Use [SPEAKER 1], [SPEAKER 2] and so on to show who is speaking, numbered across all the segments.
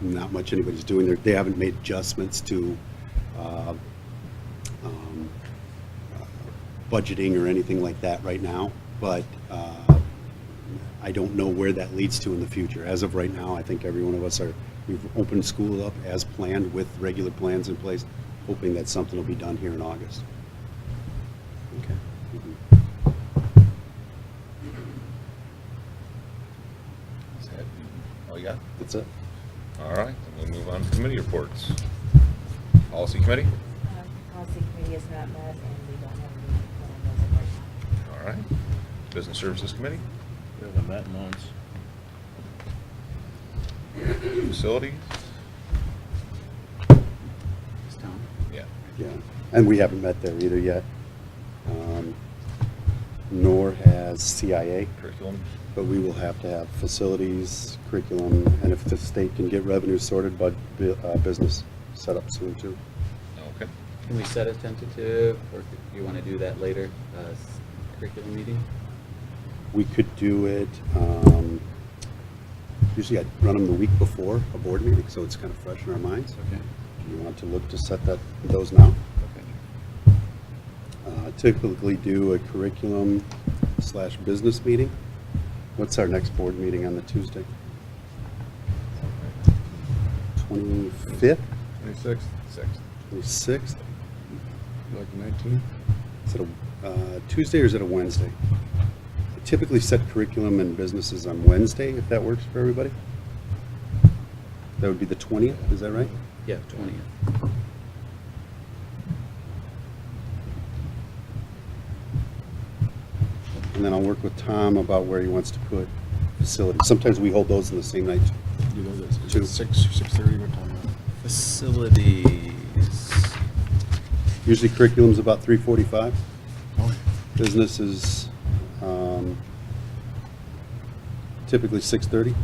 [SPEAKER 1] not much anybody's doing. They're- They haven't made adjustments to uh, um, uh, budgeting or anything like that right now, but uh, I don't know where that leads to in the future. As of right now, I think every one of us are, we've opened school up as planned with regular plans in place, hoping that something will be done here in August. Mm-hmm. Okay.
[SPEAKER 2] Is that all you got?
[SPEAKER 1] That's it.
[SPEAKER 2] All right, then we'll move on to committee reports. Policy committee?
[SPEAKER 3] Uh, Policy committee is not met, and we don't have any plan as of right now.
[SPEAKER 2] All right. Business services committee?
[SPEAKER 4] We haven't met in months.
[SPEAKER 2] Facilities? Yeah.
[SPEAKER 1] Yeah, and we haven't met there either yet, um, nor has CIA,
[SPEAKER 2] Curriculum?
[SPEAKER 1] but we will have to have facilities, curriculum, and if the state can get revenue sorted, but bu- uh, business set up soon too.
[SPEAKER 2] Okay.
[SPEAKER 5] Can we set a tentative, or do you want to do that later, uh, s- curriculum meeting?
[SPEAKER 1] We could do it, um, usually I'd run them the week before a board meeting, so it's kind of fresh in our minds.
[SPEAKER 5] Okay.
[SPEAKER 1] Do you want to look to set that, those now?
[SPEAKER 5] Okay.
[SPEAKER 1] Uh, Typically do a curriculum slash business meeting. What's our next board meeting on the Tuesday? 25th,
[SPEAKER 2] Twenty-sixth? Sixth.
[SPEAKER 1] 26th?
[SPEAKER 6] Like nineteen?
[SPEAKER 1] Is it a uh, Tuesday or is it a Wednesday? I Typically set curriculum and businesses on Wednesday, if that works for everybody. That would be the 20th, is that right?
[SPEAKER 5] Yeah, twentieth.
[SPEAKER 1] And then I'll work with Tom about where he wants to put facilities. Sometimes we hold those in the same night.
[SPEAKER 6] You know, this, is
[SPEAKER 1] Two.
[SPEAKER 6] it six, six thirty, what time? is it?
[SPEAKER 5] Facilities.
[SPEAKER 1] Usually curriculum's about 3:45.
[SPEAKER 6] Oh,
[SPEAKER 1] Business is um, typically 6:30.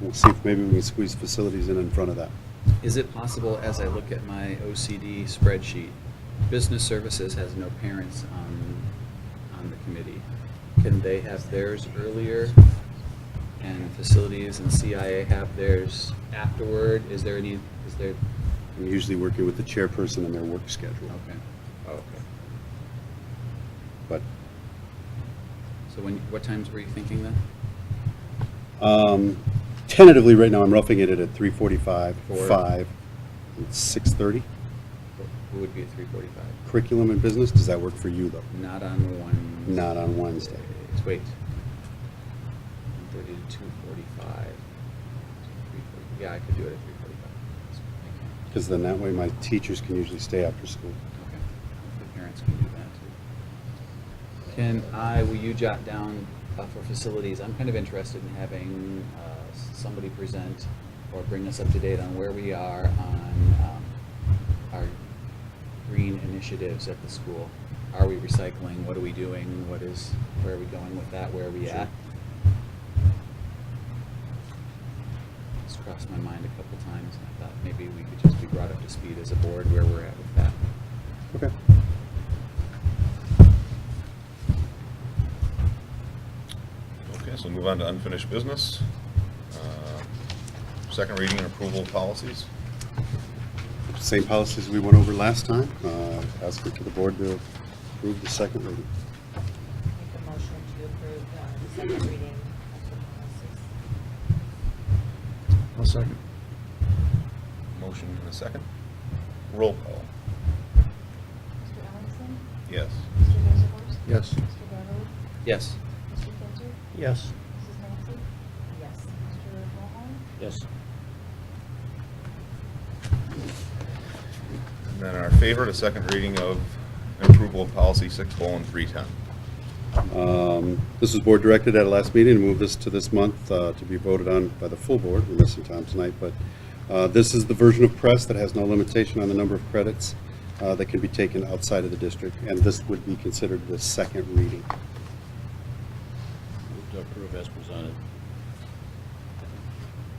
[SPEAKER 1] We'll see if maybe we can squeeze facilities in in front of that.
[SPEAKER 5] Is it possible, as I look at my OCD spreadsheet, business services has no parents on, on the committee? Can they have theirs earlier? And facilities and CIA have theirs afterward? Is there any, is there,
[SPEAKER 1] I'm usually working with the chairperson and their work schedule,
[SPEAKER 5] okay.
[SPEAKER 2] Oh, Okay.
[SPEAKER 1] but
[SPEAKER 5] So when, what times were you thinking then?
[SPEAKER 1] um, tentatively, right now, I'm roughing it at 3:45,
[SPEAKER 5] Four.
[SPEAKER 1] 5, and 6:30.
[SPEAKER 5] It would be at three forty-five.
[SPEAKER 1] Curriculum and business, does that work for you, though?
[SPEAKER 5] Not on one.
[SPEAKER 1] Not on Wednesday.
[SPEAKER 5] It's- Wait. Thirty to two forty-five. Yeah, I could do it at three forty-five.
[SPEAKER 1] Because then that way, my teachers can usually stay after school.
[SPEAKER 5] Okay. The parents can do that too. Can I, will you jot down uh, for facilities, I'm kind of interested in having uh, s- somebody present or bring us up to date on where we are on um, our green initiatives at the school. Are we recycling? What are we doing? What is, where are we going with that? Where are we at? It's crossed my mind a couple times and I thought maybe we could just be brought up to speed as a board where we're at with that.
[SPEAKER 1] Okay.
[SPEAKER 2] Okay, so move on to unfinished business. Uh, Second reading and approval of policies.
[SPEAKER 1] Same policies we went over last time. Uh, Ask for to the board to approve the second reading.
[SPEAKER 3] Make a motion to approve uh, the second reading of the policies.
[SPEAKER 6] I'll second.
[SPEAKER 2] Motion in a second. Roll call.
[SPEAKER 7] Mr. Allison?
[SPEAKER 2] Yes.
[SPEAKER 7] Mr. Vanderhorst?
[SPEAKER 6] Yes.
[SPEAKER 7] Mr. Beverly?
[SPEAKER 5] Yes.
[SPEAKER 7] Mr. Kinzer?
[SPEAKER 4] Yes.
[SPEAKER 7] Mrs. Maxey?
[SPEAKER 3] Yes.
[SPEAKER 7] Mr. Mahoney?
[SPEAKER 4] Yes.
[SPEAKER 2] And then our favorite, a second reading of approval of policy six colon three ten.
[SPEAKER 1] Um, This was board directed at our last meeting, and move this to this month uh, to be voted on by the full board. We're missing Tom tonight, but uh, this is the version of press that has no limitation on the number of credits uh, that can be taken outside of the district, and this would be considered the second reading.
[SPEAKER 4] Move to approve as presented.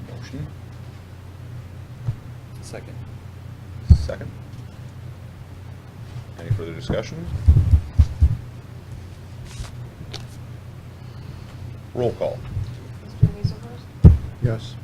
[SPEAKER 2] Motion,
[SPEAKER 5] Second.
[SPEAKER 2] second. Any further discussion? Roll call.
[SPEAKER 7] Mr. Hazelhurst?
[SPEAKER 6] Yes.